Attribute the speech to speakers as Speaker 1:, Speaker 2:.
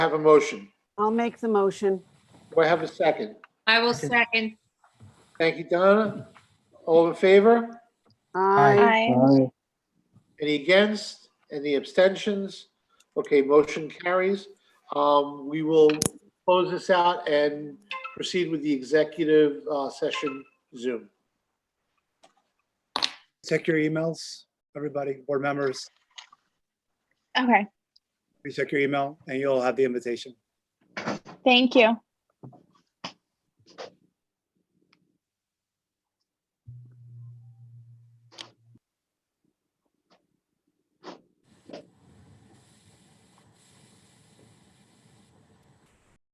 Speaker 1: have a motion?
Speaker 2: I'll make the motion.
Speaker 1: Do I have a second?
Speaker 3: I will second.
Speaker 1: Thank you, Donna. All in favor?
Speaker 2: Aye.
Speaker 1: Any against? Any abstentions? Okay, motion carries. Um, We will close this out and proceed with the executive uh, session Zoom.
Speaker 4: Check your emails, everybody, board members,
Speaker 5: Okay,
Speaker 4: please check your email and you'll have the invitation.
Speaker 5: thank you.